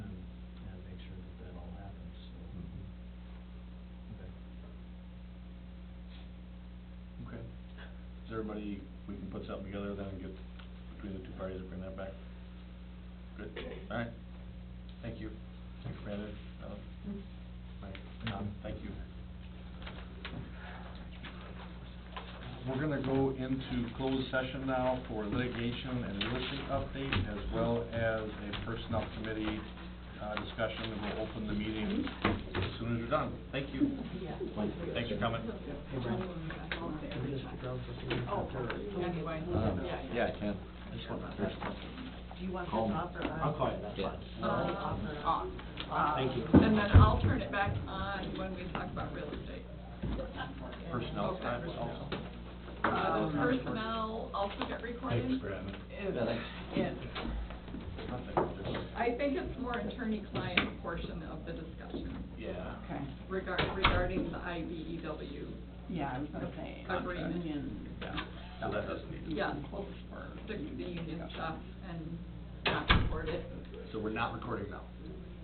everybody, we can put something together then and get, between the two parties, and bring that back. Good, all right, thank you. Thanks, Brandon, Uh, Alan, Mike, Tom, Um, thank you. We're gonna go into closed session now for litigation and real estate update, as well as a personnel committee, uh, discussion, and we'll open the meeting as soon as you're done. Thank you. Thanks for coming. Hey, Brent, can we just stick around for a few minutes after? Anyway, yeah. Yeah, I can. Um, I just want to address something. Do you want this Call me. off or on? I'll call you, that's fine. Uh, Off or on? Uh, Thank you. And then I'll turn it back on when we talk about real estate. Personnel side also. Uh, personnel also get recorded. Brandon. Is- Yeah, thanks. is- I think it's more attorney-client portion of the discussion Yeah. Okay, regarding, regarding the E IBEW. yeah, I was gonna say, uh, Agreement. union. So that doesn't need, Yeah. Close for. Stick to the union discussion. stuff and not record it. so we're not recording now?